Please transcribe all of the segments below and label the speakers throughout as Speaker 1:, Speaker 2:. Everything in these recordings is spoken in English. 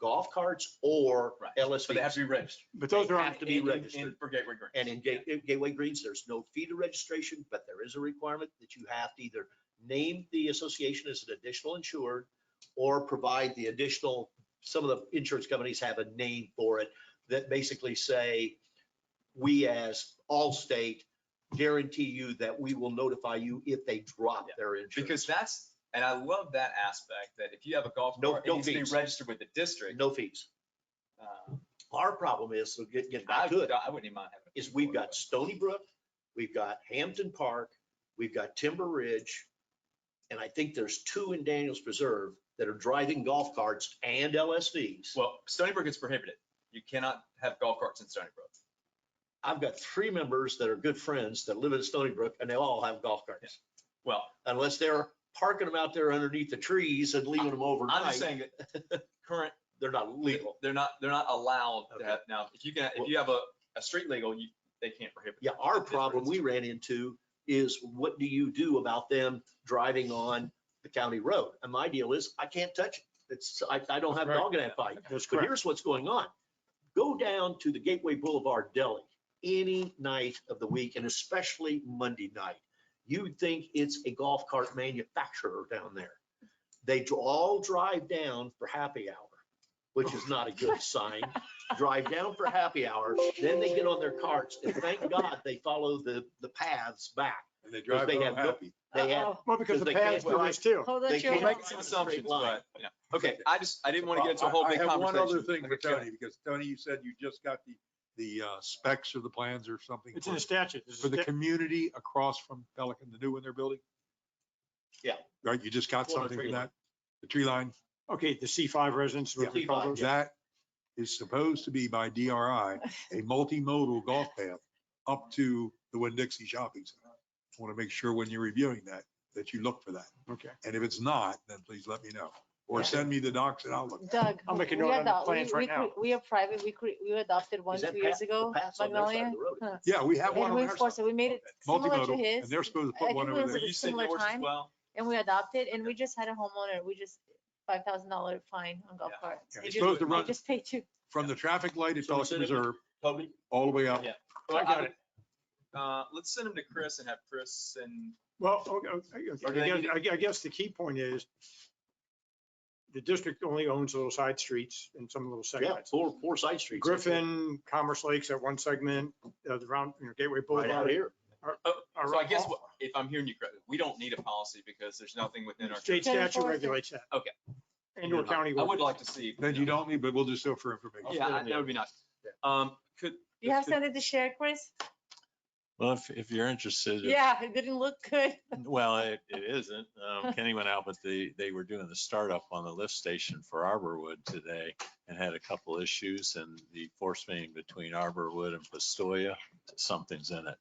Speaker 1: golf carts or
Speaker 2: Right. But they have
Speaker 1: LSVs.
Speaker 2: to be registered.
Speaker 3: But those
Speaker 1: They
Speaker 3: are,
Speaker 1: have
Speaker 3: on-
Speaker 1: to be
Speaker 2: And- and-
Speaker 1: registered.
Speaker 2: and For Gateway Greens.
Speaker 1: And in Ga- in Gateway Greens, there's no fee to registration, but there is a requirement that you have to either name the association as an additional insured or provide the additional, some of the insurance companies have a name for it that basically say, we as Allstate guarantee you that we will notify you if they drop their insurance.
Speaker 2: Because that's, and I love that aspect, that if you have a golf
Speaker 1: No-
Speaker 2: cart, it
Speaker 1: no
Speaker 2: needs to be
Speaker 1: fees.
Speaker 2: registered with the district.
Speaker 1: No fees.
Speaker 2: Um,
Speaker 1: Our problem is, so get, get
Speaker 2: I
Speaker 1: back to it.
Speaker 2: I wouldn't even mind having. a
Speaker 1: is
Speaker 2: fee
Speaker 1: we've
Speaker 2: for it,
Speaker 1: got Stony Brook, we've got Hampton Park, we've got Timber Ridge. And I think there's two in Daniels Preserve that are driving golf carts and
Speaker 2: but-
Speaker 1: LSVs.
Speaker 2: Well, Stony Brook is prohibited. You cannot have golf carts in Stony Brook.
Speaker 1: I've got three members that are good friends that live in Stony Brook and they all have golf carts.
Speaker 2: Well,
Speaker 1: Unless they're parking them out there underneath the trees and leaving them
Speaker 2: I'm just
Speaker 1: overnight,
Speaker 2: saying that current,
Speaker 1: they're not legal.
Speaker 2: they're not, they're not allowed to
Speaker 1: Okay.
Speaker 2: have, now, if you can, if you have a, a street legal, you, they can't prohibit.
Speaker 1: Yeah, our problem we ran into is what do you do about them driving on the county road? And my deal is, I can't touch it. It's, I, I don't have a dog in that fight.
Speaker 3: that's
Speaker 1: But
Speaker 3: correct.
Speaker 1: here's what's going on. Go down to the Gateway Boulevard Deli any night of the week and especially Monday night. You'd think it's a golf cart manufacturer down there. They dr- all drive down for happy hour, which is not a good sign. Drive down for happy hour, then they get on their carts and thank God they follow the, the paths back.
Speaker 4: And they
Speaker 1: Because
Speaker 4: drive
Speaker 1: they
Speaker 4: home
Speaker 1: have no-
Speaker 4: happy.
Speaker 1: They have,
Speaker 5: Uh-oh.
Speaker 3: Well,
Speaker 1: Because
Speaker 3: because the
Speaker 1: they can't
Speaker 3: paths are
Speaker 1: drive.
Speaker 3: still.
Speaker 5: Hold
Speaker 1: they
Speaker 5: on,
Speaker 1: can't
Speaker 2: We're
Speaker 5: your
Speaker 2: making
Speaker 5: horse.
Speaker 2: some
Speaker 1: It's a straight
Speaker 2: assumptions,
Speaker 1: line.
Speaker 2: but, you know,
Speaker 3: Oh.
Speaker 2: okay, I just, I didn't want to get into a whole
Speaker 4: I- I
Speaker 2: big
Speaker 4: have
Speaker 2: conversation.
Speaker 4: One other thing for
Speaker 2: Okay, go ahead.
Speaker 4: Tony, because Tony, you said you just got the, the uh, specs of the plans or something
Speaker 3: It's in
Speaker 4: for-
Speaker 3: the statute. It's a
Speaker 4: for the
Speaker 3: sta-
Speaker 4: community across from Pelican, the new one they're building?
Speaker 1: Yeah.
Speaker 4: Right, you just
Speaker 1: Well,
Speaker 4: got
Speaker 1: the
Speaker 4: something
Speaker 1: tree
Speaker 4: from
Speaker 1: line.
Speaker 4: that? The tree line,
Speaker 3: Okay, the C5 residents, whatever you call
Speaker 1: Yeah.
Speaker 3: those.
Speaker 4: that is supposed to be by DRI, a multimodal golf path up to the Winn-Dixie Shopping Center. I Want to make sure when you're reviewing that, that you look for that.
Speaker 3: Okay.
Speaker 4: And if it's not, then please let me know, or send me the docs and I'll look. at it.
Speaker 5: Doug.
Speaker 3: I'll make a
Speaker 5: we
Speaker 3: note
Speaker 5: are
Speaker 3: on the
Speaker 5: adopt- we-
Speaker 3: plans right
Speaker 5: we cre-
Speaker 3: now.
Speaker 5: We are private, we cre- we adopted one
Speaker 1: Is that
Speaker 5: two years
Speaker 1: path- the
Speaker 5: ago,
Speaker 1: paths on their side of
Speaker 5: Magnolia.
Speaker 1: the road.
Speaker 4: Yeah, we have one
Speaker 5: And
Speaker 4: on
Speaker 5: we
Speaker 4: our side.
Speaker 5: enforced it, we made it similar to
Speaker 4: Multimodal, and
Speaker 5: his,
Speaker 4: they're supposed to
Speaker 5: I
Speaker 4: put
Speaker 5: think
Speaker 4: one
Speaker 5: it
Speaker 4: over
Speaker 5: was
Speaker 4: there.
Speaker 5: a
Speaker 2: You said
Speaker 5: similar
Speaker 2: yours as
Speaker 5: time.
Speaker 2: well?
Speaker 5: and we adopted, and we just had a homeowner, we just, five thousand dollar fine on golf
Speaker 2: Yeah.
Speaker 5: cart.
Speaker 4: Yeah,
Speaker 5: They
Speaker 4: it's
Speaker 5: just-
Speaker 4: supposed to
Speaker 5: they
Speaker 4: run-
Speaker 5: Just paid you.
Speaker 4: From the traffic light at
Speaker 1: So we
Speaker 4: Pelican
Speaker 1: send it-
Speaker 4: Reserve,
Speaker 1: Toby?
Speaker 4: all the way up.
Speaker 2: Yeah.
Speaker 3: I got
Speaker 2: would- Uh, let's send them to Chris and have Chris and
Speaker 3: Well, okay, okay,
Speaker 2: Or do
Speaker 3: okay,
Speaker 2: they
Speaker 3: I
Speaker 2: need
Speaker 3: guess, I gue- I guess the key point is the district only owns little side streets and some little
Speaker 1: Yeah,
Speaker 3: segments.
Speaker 1: four, four side streets.
Speaker 3: Griffin, Commerce Lakes at one segment, uh, the round, you know, Gateway
Speaker 1: Right out
Speaker 3: Boulevard.
Speaker 1: here.
Speaker 3: are
Speaker 2: So I guess
Speaker 3: all-
Speaker 2: what- if I'm hearing you correctly, we don't need a policy because there's nothing within our.
Speaker 3: State
Speaker 5: Can
Speaker 3: statute
Speaker 5: enforce it.
Speaker 3: regulates that.
Speaker 2: Okay.
Speaker 3: And your county.
Speaker 2: I
Speaker 3: will.
Speaker 2: would like to see.
Speaker 4: Then you don't need, but we'll just do it for information.
Speaker 2: Yeah, I- that would be nice.
Speaker 1: Yeah.
Speaker 2: Um, could.
Speaker 5: You have
Speaker 2: could-
Speaker 5: something to share, Chris?
Speaker 6: Well, if, if you're interested, if-
Speaker 5: Yeah, it didn't look good.
Speaker 6: well, it, it isn't. Um, Kenny went out, but they, they were doing the startup on the lift station for Arborwood today and had a couple issues and the force main between Arborwood and Pistoia, something's in it.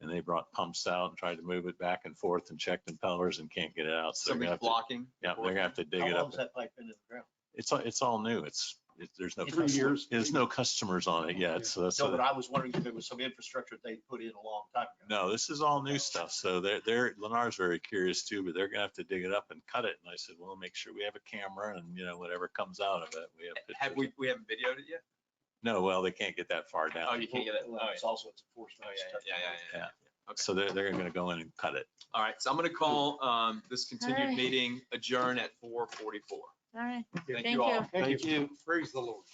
Speaker 6: And they brought pumps out and tried to move it back and forth and checked impellers and can't get it out. So they're gonna
Speaker 2: Somebody's
Speaker 6: have to,
Speaker 2: blocking.
Speaker 6: yeah, they're gonna have to dig
Speaker 1: How
Speaker 6: it
Speaker 1: long
Speaker 6: up.
Speaker 1: has that pipe been in the ground?
Speaker 6: It's, all- it's all new. It's, it- there's no,
Speaker 1: Three
Speaker 6: custom-
Speaker 4: years.
Speaker 6: there's no customers on it yet. So that's.
Speaker 1: No,
Speaker 6: a-
Speaker 1: but I was wondering if there was some infrastructure they put in a long time ago.
Speaker 6: No, this is all new stuff. So they're, they're, Lennar's very curious too, but they're gonna have to dig it up and cut it. And I said, well, make sure we have a camera and, you know, whatever comes out of it, we have.
Speaker 2: Have
Speaker 6: pictures."
Speaker 2: we, we haven't videoed it yet?
Speaker 6: No, well, they can't get that far
Speaker 2: Oh,
Speaker 6: down.
Speaker 2: you can't get it. Oh,
Speaker 1: Well,
Speaker 2: yeah.
Speaker 1: It's also it's
Speaker 2: Oh,
Speaker 1: enforcement.
Speaker 2: yeah,
Speaker 1: stuff.
Speaker 2: yeah, yeah, yeah, yeah. Okay.
Speaker 6: So they're, they're gonna go in and cut it.
Speaker 2: All right, so I'm gonna call, um, this continued
Speaker 5: right.
Speaker 2: meeting adjourn at four forty-four.
Speaker 5: All right,
Speaker 2: Thank
Speaker 5: thank
Speaker 2: you all.
Speaker 5: you.
Speaker 3: Thank you.
Speaker 4: Praise the Lord.